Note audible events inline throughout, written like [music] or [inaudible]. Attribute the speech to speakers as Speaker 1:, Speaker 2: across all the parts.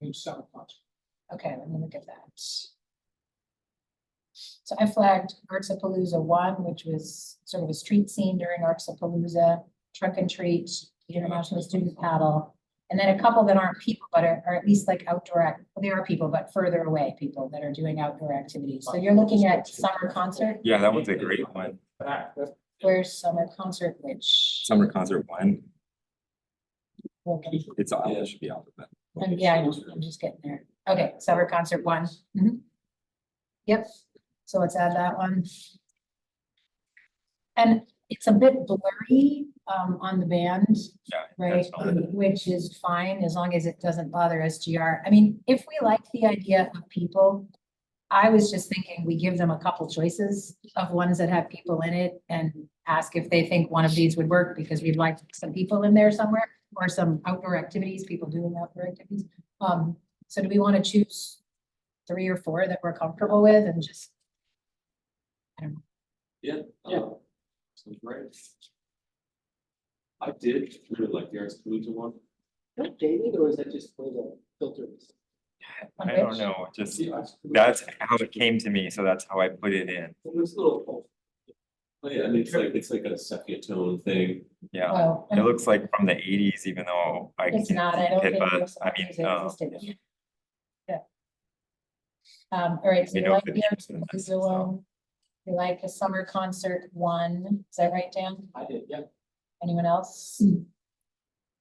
Speaker 1: himself up.
Speaker 2: Okay, let me look at that. So I flagged Artsapalooza one, which was sort of a street scene during Artsapalooza, trunk and treat, international student paddle. And then a couple that aren't people, but are, are at least like outdoor, act- well, they are people, but further away people that are doing outdoor activities. So you're looking at summer concert,
Speaker 3: Yeah, that one's a great one.
Speaker 1: That, that,
Speaker 2: where's summer concert, which,
Speaker 3: Summer concert one.
Speaker 2: we'll get-
Speaker 3: It's on, it should be on. but-
Speaker 2: um, yeah, I know, I'm just getting there. Okay, summer concert one. Mhm. Yep, so let's add that one. And it's a bit blurry um on the band,
Speaker 3: Yeah.
Speaker 2: right?
Speaker 3: that's fine.
Speaker 2: Which is fine, as long as it doesn't bother SGR. I mean, if we like the idea of people. I was just thinking we give them a couple choices of ones that have people in it and ask if they think one of these would work because we'd like some people in there somewhere. Or some outdoor activities, people doing outdoor activities. Um, so do we want to choose three or four that we're comfortable with and just
Speaker 4: Yeah.
Speaker 1: Yeah.
Speaker 4: uh, Sounds great. I did really like the Arts Collegiate one.
Speaker 5: Not dated, or is that just for the filters?
Speaker 2: on
Speaker 3: I don't
Speaker 2: which?
Speaker 3: know, just,
Speaker 4: See, Arts Collegiate.
Speaker 3: that's how it came to me, so that's how I put it in,
Speaker 4: Well, It's a little. Oh, yeah, and it's like, it's like a sepia tone thing.
Speaker 3: yeah.
Speaker 2: Well,
Speaker 3: It looks like from the eighties, even though I.
Speaker 2: Oh, it's
Speaker 3: can't
Speaker 2: not, I
Speaker 3: see
Speaker 2: don't think.
Speaker 3: HIPAA,
Speaker 2: most of
Speaker 3: I
Speaker 2: the
Speaker 3: mean,
Speaker 2: music
Speaker 3: um,
Speaker 2: existed. Yeah. Um, all right, so
Speaker 3: We
Speaker 2: you
Speaker 3: know
Speaker 2: like
Speaker 3: the
Speaker 2: the
Speaker 3: names and that's-
Speaker 2: Artsapalooza one. You like the summer concert one, is that right, Dan?
Speaker 5: I did, yeah.
Speaker 2: Anyone else?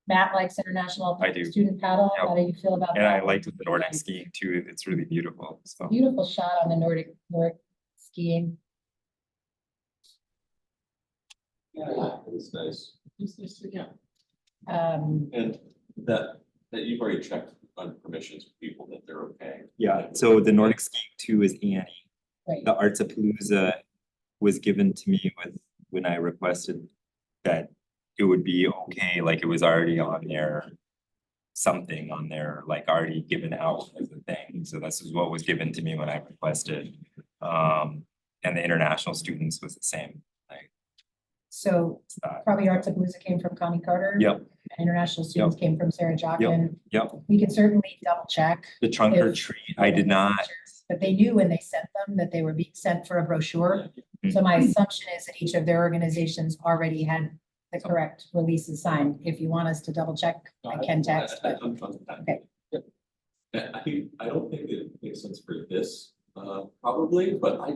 Speaker 2: Matt likes international
Speaker 3: I do.
Speaker 2: student paddle,
Speaker 3: Yep.
Speaker 2: how do you feel about that?
Speaker 3: And I
Speaker 2: one?
Speaker 3: liked the Nordic
Speaker 2: Nice.
Speaker 3: skiing too, it's really beautiful, so.
Speaker 2: Beautiful shot on the Nordic, Nordic skiing.
Speaker 4: Yeah, it was nice.
Speaker 5: It's just, yeah.
Speaker 2: Um,
Speaker 4: And that, that you've already checked on permissions with people that they're okay.
Speaker 3: Yeah, so the Nordic skiing too is Annie,
Speaker 2: right,
Speaker 3: the Arts of Palooza was given to me with, when I requested that it would be okay, like it was already on there. Something on there, like already given out as a thing, so this is what was given to me when I requested. Um, and the international students was the same,
Speaker 2: so
Speaker 3: it's that,
Speaker 2: probably Arts of Palooza came from Connie Carter.
Speaker 3: Yep.
Speaker 2: and International students came from Sarah Jochen.
Speaker 3: yep,
Speaker 2: We could certainly double check.
Speaker 3: the trunk or
Speaker 2: If-
Speaker 3: treat, I did not,
Speaker 2: But they knew when they sent them that they were being sent for a brochure.
Speaker 3: Mm-hmm.
Speaker 2: So my assumption is that each of their organizations already had the correct releases signed. If you want us to double check, I can text,
Speaker 4: I- I-
Speaker 2: but
Speaker 4: I'm fine with that.
Speaker 2: Okay.
Speaker 4: Yep. And I think, I don't think it makes sense for this, uh, probably, but I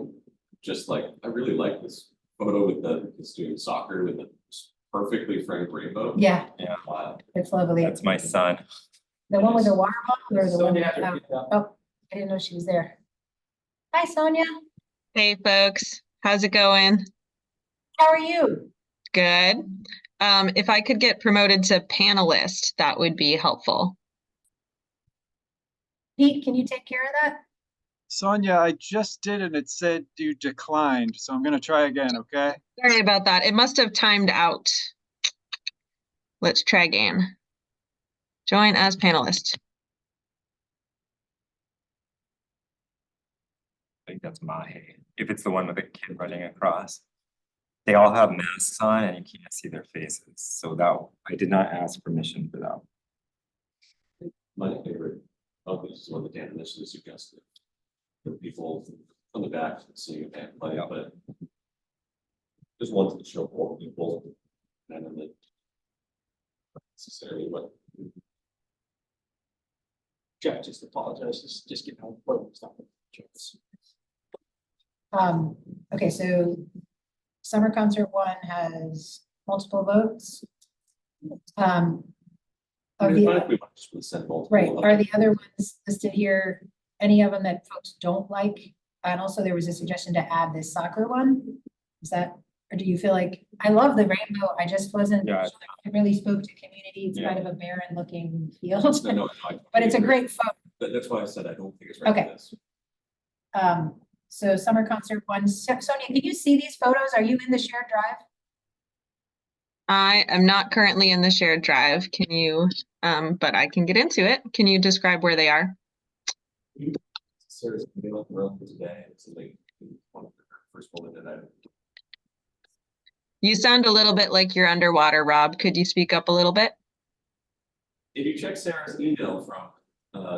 Speaker 4: just like, I really like this photo with the, kids doing soccer with the perfectly framed rainbow.
Speaker 2: yeah,
Speaker 4: Wow.
Speaker 2: it's lovely.
Speaker 3: that's my son,
Speaker 2: The one with the water bottle or the
Speaker 5: So
Speaker 2: one
Speaker 5: now
Speaker 2: without?
Speaker 5: they're- yeah.
Speaker 2: I didn't know she was there. Hi, Sonia.
Speaker 6: Hey folks, how's it going?
Speaker 2: How are you?
Speaker 6: Good. Um, if I could get promoted to panelist, that would be helpful.
Speaker 2: Pete, can you take care of that?
Speaker 7: Sonia, I just did and it said you declined, so I'm gonna try again, okay?
Speaker 6: Sorry about that. It must have timed out. Let's try again. Join as panelist.
Speaker 3: I think that's Mahe, if it's the one with the kid running across. They all have masks on and you can't see their faces, so that, I did not ask permission for that.
Speaker 4: My favorite, oh, this is one that Dan initially suggested. The people on the back seeing a band play,
Speaker 3: Yeah.
Speaker 4: but. Just wanted to show all the people, and then the. Necessarily what
Speaker 5: Jeff just apologizes, just get out, well, it's not.
Speaker 2: Um, okay, so summer concert one has multiple votes. Um.
Speaker 4: I
Speaker 2: Of
Speaker 4: mean,
Speaker 2: the,
Speaker 4: if we might just would send multiple
Speaker 2: right,
Speaker 4: of
Speaker 2: are
Speaker 4: them.
Speaker 2: the other ones listed here, any of them that folks don't like? And also there was a suggestion to add this soccer one. Is that, or do you feel like, I love the rainbow, I just wasn't,
Speaker 3: Yeah.
Speaker 2: sure it really spoke to community. It's
Speaker 3: Yeah.
Speaker 2: kind of a barren looking field, [laughs]
Speaker 4: No, no, I-
Speaker 2: but it's a great photo.
Speaker 4: That, that's why I said I don't think it's right
Speaker 2: Okay.
Speaker 4: for this.
Speaker 2: Um, so summer concert one, So- Sonia, can you see these photos? Are you in the shared drive?
Speaker 6: I am not currently in the shared drive. Can you, um, but I can get into it. Can you describe where they are?
Speaker 4: Sarah's been on the road for today, and it's like, one of the first woman that I.
Speaker 6: You sound a little bit like you're underwater, Rob. Could you speak up a little bit?
Speaker 4: If you check Sarah's email from uh,